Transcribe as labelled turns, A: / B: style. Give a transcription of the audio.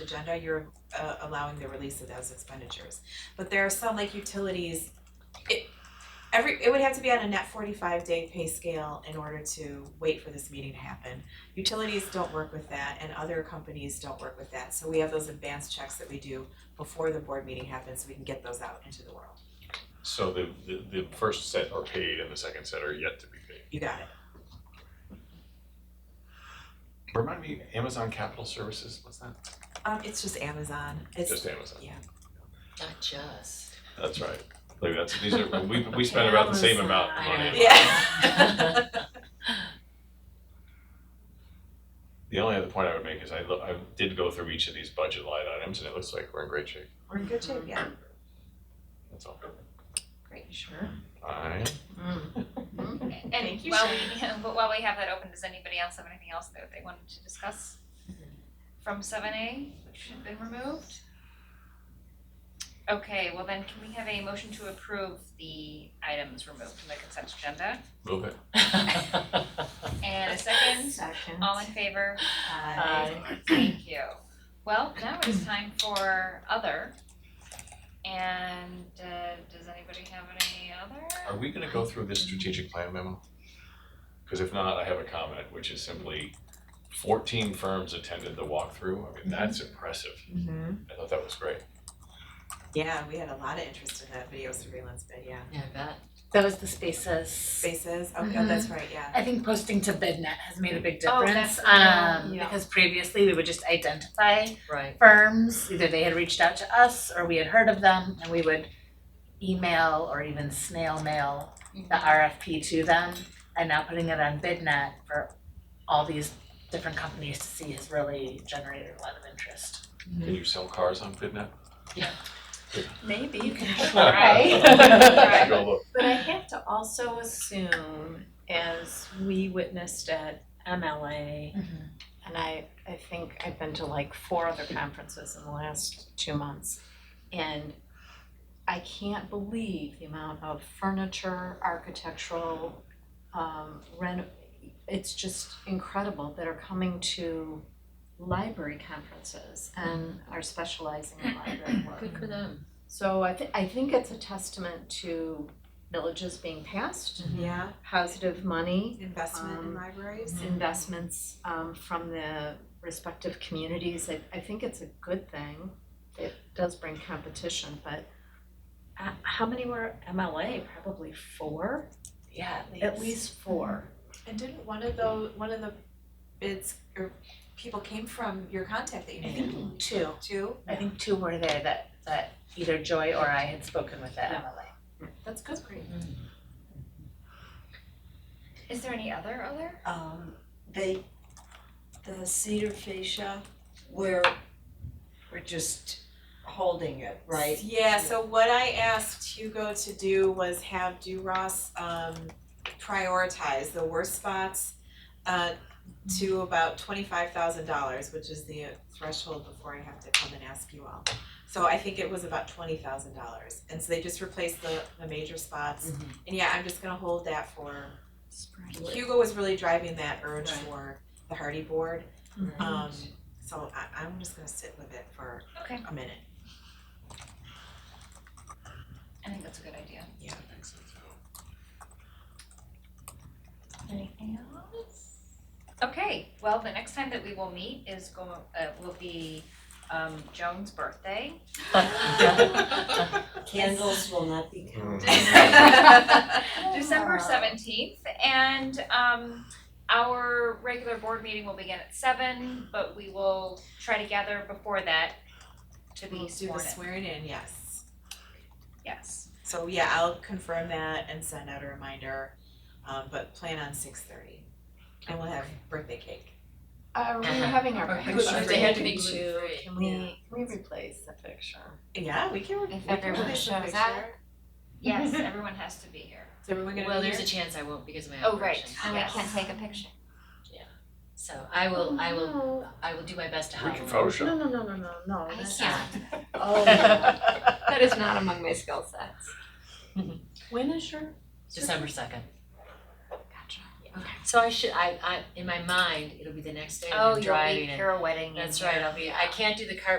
A: agenda, you're uh allowing the release of those expenditures. But there are some like utilities, it every, it would have to be on a net forty-five day pay scale in order to wait for this meeting to happen. Utilities don't work with that and other companies don't work with that, so we have those advanced checks that we do before the board meeting happens, so we can get those out into the world.
B: So the, the, the first set are paid and the second set are yet to be paid.
A: You got it.
B: Remind me, Amazon Capital Services, what's that?
A: Um, it's just Amazon, it's,
B: Just Amazon.
A: yeah.
C: Not just.
B: That's right. Like that's, these are, we, we spend about the same amount of
C: Amazon.
B: money.
A: Yeah.
B: The only other point I would make is I, lo- I did go through each of these budget line items and it looks like we're in great shape.
A: We're in good shape, yeah.
B: That's all.
A: Great, sure.
B: I,
D: And
E: Mm.
D: Mm.
A: Thank you,
D: while we, but while we have that open, does anybody else have anything else that they wanted to discuss? From seven A, which had been removed? Okay, well then can we have a motion to approve the items removed from the consent agenda?
B: move it.
D: And a second,
A: Second.
D: all in favor?
A: Aye.
D: Thank you. Well, now it's time for other. And uh does anybody have any
B: Are
D: other?
B: we gonna go through this strategic plan memo? Cause if not, I have a comment, which is simply fourteen firms attended the walkthrough. I mean, that's impressive.
A: hmm
B: I thought that was great.
A: Yeah, we had a lot of interest in that video surveillance bid, yeah.
C: Yeah, I bet.
F: That was the spaces.
A: Spaces, oh, yeah, that's right, yeah.
F: I think posting to BidNet has made a big
D: Oh,
F: difference.
D: that's- yeah,
F: um,
A: yeah.
F: Because previously we would just identify
C: Right.
F: firms, either they had reached out to us or we had heard of them and we would email or even snail mail the RFP to them. And now putting it on BidNet for all these different companies to see has really generated a lot of interest.
A: Mm-hmm.
B: Can you sell cars on FitNet?
E: Maybe you can
D: Right.
B: Go look.
E: But I have to also assume, as we witnessed at MLA,
C: Mm-hmm.
E: and I, I think I've been to like four other conferences in the last two months. And I can't believe the amount of furniture, architectural, um, reno, it's just incredible that are coming to library conferences and are specializing in library work.
C: Good for them.
E: So I thi- I think it's a testament to villages being passed,
A: Yeah,
E: positive money,
A: investment in
E: Um,
A: libraries.
E: investments um from the respective communities. I I think it's a good thing. It does bring competition, but uh, how many were MLA? Probably four,
F: Yeah,
E: at least four.
A: And didn't one of those, one of the bids, or people came from your contact that you
F: I
A: made,
F: think two.
A: too?
F: I think two were there that that either Joy or I had spoken with at MLA.
E: That's good. Great.
D: Is there any other other?
G: um, they, the cedar fascia, we're, we're just holding it, right?
A: Yeah, so what I asked Hugo to do was have DuRoss um prioritize the worst spots uh to about twenty-five thousand dollars, which is the threshold before I have to come and ask you all. So I think it was about twenty thousand dollars, and so they just replaced the the major spots. And yeah, I'm just gonna hold that for, Hugo was really driving that urge
C: Right.
A: for the Hardy Board.
H: Mm-hmm.
E: Mhm.
A: Um, so I I'm just gonna sit with it for
D: Okay.
A: a minute.
D: I think that's a good idea.
A: Yeah,
D: I think so too. Anything else? Okay, well, the next time that we will meet is go, uh, will be, um, Joan's birthday.
G: Candles will not be counted.
D: Oh. December seventeenth, and, um, our regular board meeting will begin at seven, but we will try to gather before that to
A: We'll do
D: be
A: the
D: sworn in,
A: swearing in, yes.
D: yes.
A: So yeah, I'll confirm that and send out a reminder, um, but plan on six thirty. And we'll have birthday cake.
E: Uh, Are we
H: Uh-huh.
E: having our
C: Okay.
E: pictures?
C: They had to be
E: too.
C: gluten-free.
E: Can we, can we replace the picture?
A: Yeah, we can, we
H: If
A: can
H: everyone
A: release the
H: shows up.
A: picture.
D: Yes, everyone has to be here.
A: Is everyone gonna be
C: Well, there's
A: there?
C: a chance I won't because of my
D: Oh, right.
C: operation.
H: And I
D: Yes.
H: can't take a picture.
C: So I will, I will,
E: Oh, No,
C: I will do my best to
B: We
C: help.
B: can
E: no,
B: Photoshop.
E: no, no, no, no, no.
H: I
E: that's-
H: can't.
E: Oh, no.
H: That is not among my skill sets.
E: Mm-hmm. When is your?
C: December second.
H: Gotcha.
C: So I should, I, I, in my mind, it'll be the next day and
D: Oh,
C: I'm
D: you'll be
C: driving and.
D: here a wedding. and
C: That's right, I'll be, I can't do the cart